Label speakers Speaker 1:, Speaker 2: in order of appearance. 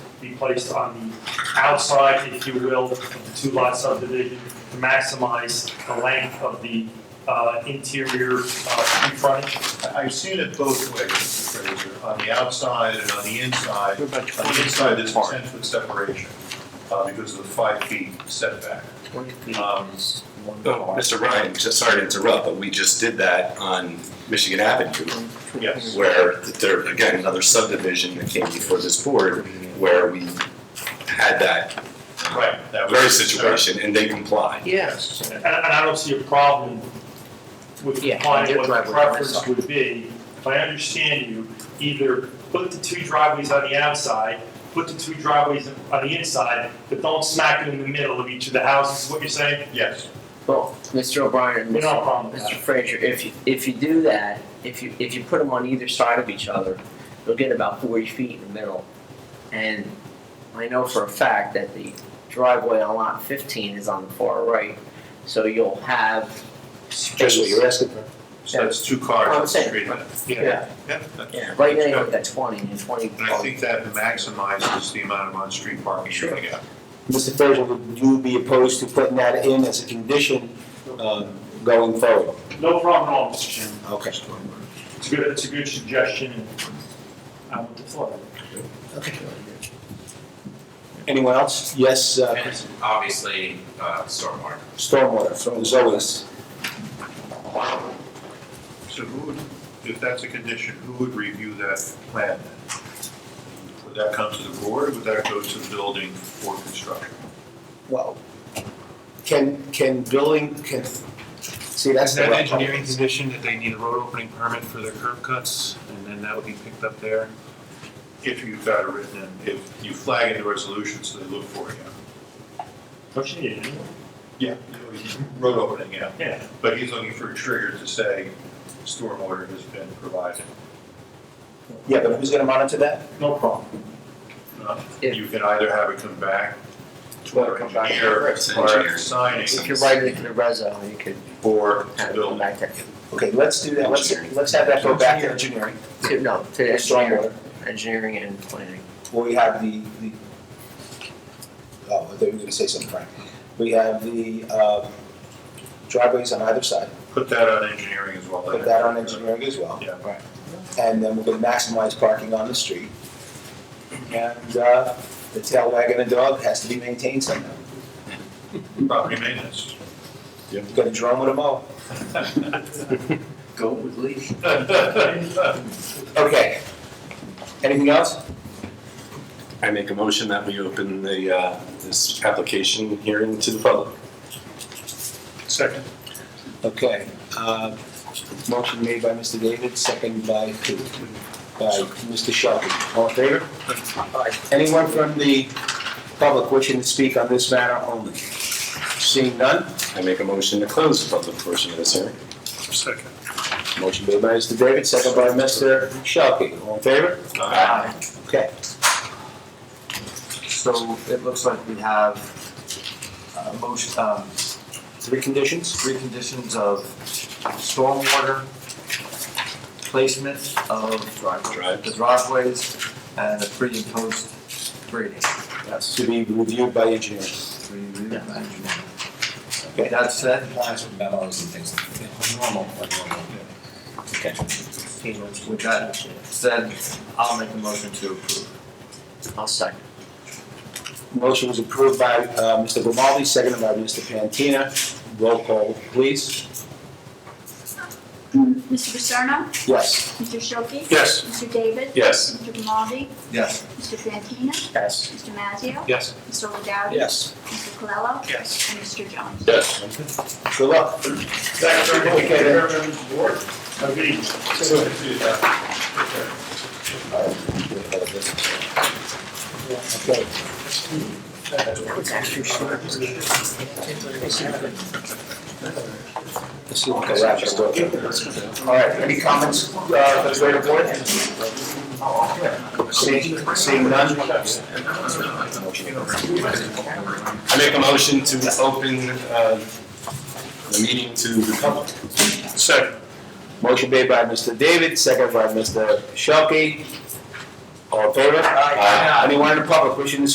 Speaker 1: be placed on the outside, if you will, of the two-lot subdivision to maximize the length of the uh, interior uh, street frontage.
Speaker 2: I- I've seen it both ways, Mr. Fraser, on the outside and on the inside.
Speaker 3: What about
Speaker 2: On the inside, there's a ten-foot separation, uh, because of the five-feet setback. Um,
Speaker 4: Mm-hmm. Oh, Mr. Ryan, just sorry to interrupt, but we just did that on Michigan Avenue,
Speaker 2: Yes.
Speaker 4: where there, again, another subdivision that came before this board, where we had that
Speaker 2: Right, that was.
Speaker 4: very situation, and they complied.
Speaker 3: Yes.
Speaker 1: And, and I don't see a problem with
Speaker 3: Yeah,
Speaker 1: applying what
Speaker 3: your
Speaker 1: the
Speaker 3: driveway on this
Speaker 1: preference would be. If I understand you, either put the two driveways on the outside, put the two driveways on the inside, but don't smack them in the middle of each of the houses, is what you're saying?
Speaker 2: Yes,
Speaker 3: Well, Mr. O'Brien and
Speaker 1: We don't have
Speaker 3: Mr.
Speaker 1: a problem with
Speaker 3: Mr.
Speaker 1: that.
Speaker 3: Frazier, if you, if you do that, if you, if you put them on either side of each other, you'll get about forty feet in the middle. And I know for a fact that the driveway on lot fifteen is on the far right, so you'll have
Speaker 4: That's what
Speaker 3: space.
Speaker 4: you're asking for.
Speaker 2: so that's two cars
Speaker 3: I'm
Speaker 2: on the
Speaker 3: saying,
Speaker 2: street. Yeah,
Speaker 3: Yeah,
Speaker 2: that-
Speaker 3: yeah, right now you have that twenty and twenty.
Speaker 2: And I think that maximizes the amount of on-street parking you're gonna get.
Speaker 5: Mr. Fraser, would you be opposed to putting that in as a condition um, going forward?
Speaker 1: No problem at all, Mr. Chairman.
Speaker 5: Okay.
Speaker 1: It's a good, it's a good suggestion, and I want to follow
Speaker 5: Anyone else? Yes, uh,
Speaker 6: And obviously, uh, stormwater.
Speaker 5: stormwater, Zoas.
Speaker 2: So who would, if that's a condition, who would review that plan then? Would that come to the board, would that go to the building for construction?
Speaker 5: Well, can, can building, can, see, that's
Speaker 7: Is
Speaker 5: the.
Speaker 7: that engineering condition that they need a road opening permit for their curb cuts, and then that would be picked up there?
Speaker 2: If you've got it written in, if you flag it in the resolution, so they look for it,
Speaker 1: Don't you need it?
Speaker 2: yeah. Road opening, yeah,
Speaker 1: Yeah,
Speaker 2: but he's looking for a trigger to say stormwater has been provided.
Speaker 5: Yeah, but who's gonna monitor that?
Speaker 1: no problem.
Speaker 2: Uh,
Speaker 3: Yeah.
Speaker 2: You can either have it come back to
Speaker 3: Well,
Speaker 2: our
Speaker 3: come back to
Speaker 2: engineer,
Speaker 3: the
Speaker 4: first
Speaker 2: prior
Speaker 4: engineer.
Speaker 2: to signing,
Speaker 3: If you write it in the reso, you could
Speaker 2: or
Speaker 3: kind
Speaker 2: to
Speaker 3: of go
Speaker 2: building.
Speaker 3: back to,
Speaker 5: Okay, let's do that, let's, let's have that go back to engineering,
Speaker 3: to- no, to
Speaker 5: the
Speaker 3: engineering,
Speaker 5: stormwater,
Speaker 3: engineering and planning.
Speaker 5: where we have the, the, oh, I thought you were gonna say something, Frank. We have the um, driveways on either side,
Speaker 2: Put that on engineering as well.
Speaker 5: put that on engineering as well.
Speaker 2: Yeah.
Speaker 5: Right. And then we're gonna maximize parking on the street. And, uh, the tail wagging the dog has to be maintained somehow,
Speaker 2: Property maintenance.
Speaker 5: you're gonna drum with a mow.
Speaker 3: Go with leash.
Speaker 5: Okay. Anything else?
Speaker 4: I make a motion that we open the, uh, this application hearing to the public.
Speaker 2: Second.
Speaker 5: Okay, uh, motion made by Mr. David, second by, by Mr. Shelby. All in favor? All right, anyone from the public wishing to speak on this matter only? Seeing none,
Speaker 4: I make a motion to close the public portion of this hearing.
Speaker 2: Second.
Speaker 5: motion made by Mr. David, second by Mr. Shelby. All in favor? Okay.
Speaker 3: So it looks like we have uh motion, um,
Speaker 5: Three conditions?
Speaker 3: three conditions of stormwater placement of driveways,
Speaker 4: Drives.
Speaker 3: the driveways and the pre and post grading. That's
Speaker 5: To be reviewed by engineering.
Speaker 3: three really engineering.
Speaker 5: Okay.
Speaker 3: That said,
Speaker 8: Plans with memos and things, like normal, like normal.
Speaker 3: with that said, I'll make a motion to approve. I'll second.
Speaker 5: Motion was approved by uh, Mr. Grimaldi, seconded by Mr. Pantina. Roll call, please.
Speaker 9: Mr. Paterno,
Speaker 5: Yes.
Speaker 9: Mr. Shoki,
Speaker 4: Yes.
Speaker 9: Mr. David,
Speaker 4: Yes.
Speaker 9: Mr. Grimaldi,
Speaker 3: Yes.
Speaker 9: Mr. Fantina,
Speaker 5: Yes.
Speaker 9: Mr. Mazzio,
Speaker 7: Yes.
Speaker 9: Mr. O'Dowd,
Speaker 5: Yes.
Speaker 9: Mr. Colello,
Speaker 7: Yes.
Speaker 9: and Mr. Jones.
Speaker 4: Yes.
Speaker 5: Good luck.
Speaker 1: Thank you very much, members of the board. Have a good evening.
Speaker 5: Okay. Let's see what the wrap is doing. All right, any comments, uh, for the greater board? Seeing, seeing none?
Speaker 4: I make a motion to open, uh, the meeting to the public.
Speaker 5: Motion made by Mr. David, second by Mr. Shelkey. All in favor?
Speaker 4: Aye.
Speaker 5: Anyone in the public wishing to